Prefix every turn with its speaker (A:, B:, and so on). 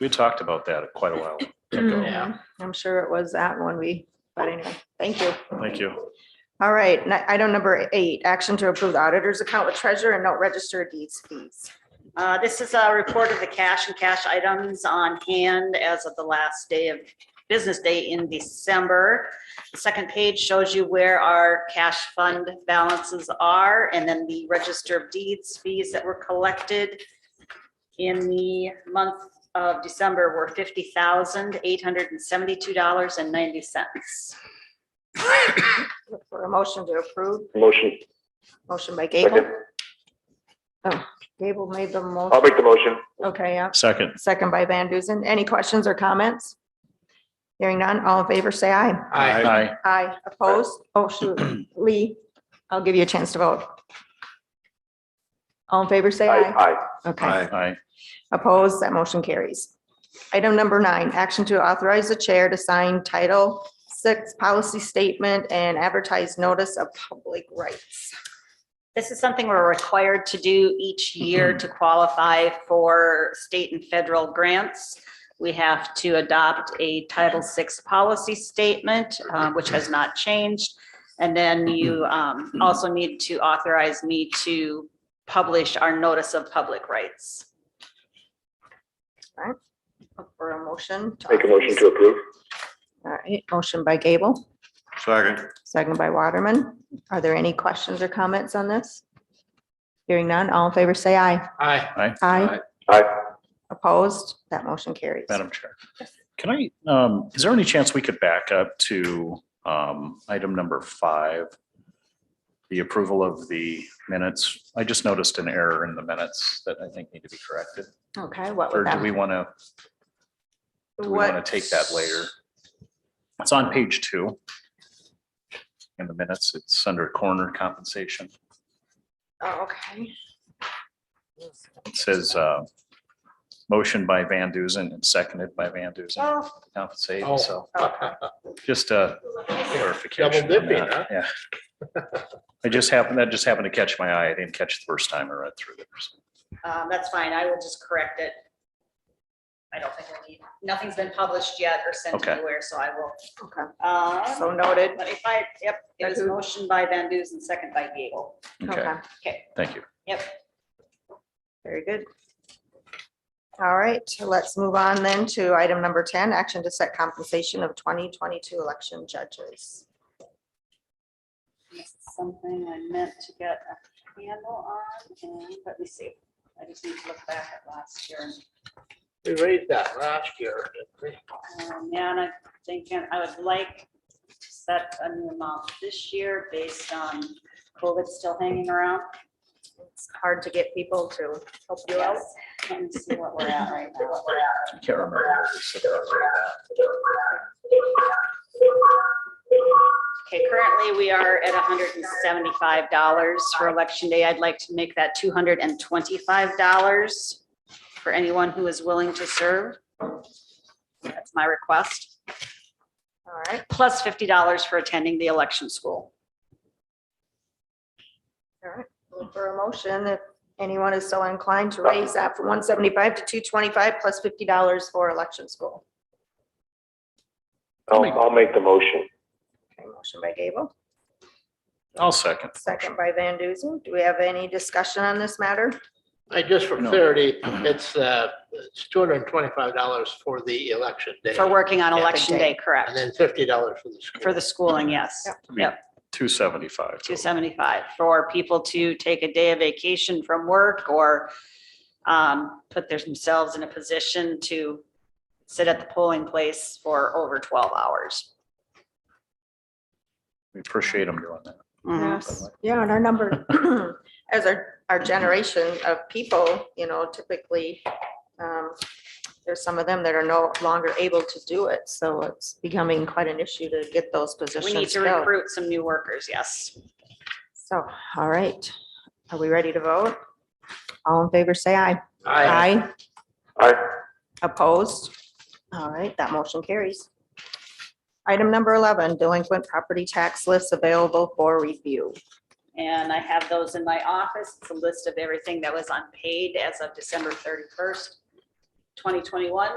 A: We talked about that quite a while ago.
B: Yeah.
C: Mm-hmm. I'm sure it was that one we, but anyway, thank you.
A: Thank you.
C: All right, ni- item number eight, action to approve the auditor's account with treasurer and note register deeds fees.
B: Uh, This is a report of the cash and cash items on hand as of the last day of business day in December. The second page shows you where our cash fund balances are and then the register of deeds fees that were collected in the month of December were fifty thousand, eight hundred and seventy-two dollars and ninety cents.
C: Look For a motion to approve,
D: Motion,
C: motion by Gable.
D: Second.
C: Oh, Gable made the motion,
D: I'll make the motion.
C: okay, yeah,
A: Second,
C: second by Van Duzen. Any questions or comments? Hearing none, all in favor, say aye.
E: Aye.
A: aye,
C: Aye, opposed? Oh, shoot, Lee, I'll give you a chance to vote. All in favor, say aye.
D: Aye,
C: Okay,
A: aye,
C: opposed, that motion carries. Item number nine, action to authorize the chair to sign title six policy statement and advertise notice of public rights.
B: This is something we're required to do each year to qualify for state and federal grants. We have to adopt a Title VI policy statement, uh, which has not changed. And then you um, also need to authorize me to publish our notice of public rights.
C: Look For a motion. to
D: make a motion to approve.
C: All right, motion by Gable,
E: Second.
C: second by Waterman. Are there any questions or comments on this? Hearing none, all in favor, say aye.
E: Aye.
A: aye.
C: Aye,
D: Aye,
C: opposed, that motion carries.
A: Madam Chair. Can I, um, is there any chance we could back up to, um, item number five? The approval of the minutes. I just noticed an error in the minutes that I think need to be corrected.
C: Okay, what
A: Or
C: would that?
A: do we want to, do we want
C: what-
A: to take that later? It's on page two. In the minutes, it's under coroner compensation.
C: Oh, okay.
A: It says, uh, motion by Van Duzen and seconded by Van Duzen
B: Um,
C: Oh,
A: to compensate,
E: Oh.
A: so just a clarification.
E: Double
A: on
E: dipping,
A: that, Yeah. I just happened, that just happened to catch my eye. I didn't catch the first time I read through it.
B: Um, That's fine. I will just correct it. I don't think we need, nothing's been published yet or sent
A: Okay.
B: anywhere, so I will.
C: okay.
B: uh,
C: So noted.
B: But if I, yep, it was
C: Who?
B: motion by Van Duzen, second by Gable.
A: Okay,
C: Okay,
A: thank you.
B: Yep.
C: very good. All right, let's move on then to item number ten, action to set compensation of twenty twenty-two election judges.
B: This is Something I meant to get a handle on, and let me see. I just need to look back at last year.
E: We raised that last year. didn't
B: Um, Yeah, and I'm thinking I would like to set a new amount this year based on COVID still hanging around.
C: It's hard to get people to help you out.
B: Yes. Let me see what we're at right now.
A: I Can't remember. what we said about that.
B: Okay, currently we are at hundred and seventy-five dollars for election day. I'd like to make that two hundred and twenty-five dollars for anyone who is willing to serve. That's my request,
C: All right,
B: plus fifty dollars for attending the election school.
C: all right. Look For a motion, if anyone is so inclined to raise that from one seventy-five to two twenty-five plus fifty dollars for election school.
D: I'll, I'll make the motion.
C: Okay, motion by Gable,
A: I'll second.
C: second by Van Duzen. Do we have any discussion on this matter?
E: we? I just for
A: No.
E: clarity, it's, uh, it's two hundred and twenty-five dollars for the election day.
B: For working on
E: Yeah, the
B: election
C: day.
B: day, correct,
E: And then fifty dollars for the school.
B: for the schooling, yes.
C: Yep.
B: Yep,
A: Two seventy-five.
B: two seventy-five for people to take a day of vacation from work or um, put themselves in a position to sit at the polling place for over twelve hours.
A: We appreciate them doing that.
B: Mhm.
C: Yes, yeah, and our number, as our, our generation of people, you know, typically, um, there's some of them that are no longer able to do it, so it's becoming quite an issue to get those
B: We need
C: positions
B: to
C: filled.
B: recruit some new workers, yes.
C: So, all right, are we ready to vote? All in favor, say aye.
E: Aye.
D: Aye,
C: Opposed? All right, that motion carries. Item number eleven, delinquent property tax lists available for review.
B: And I have those in my office. It's a list of everything that was unpaid as of December thirty-first, twenty twenty-one.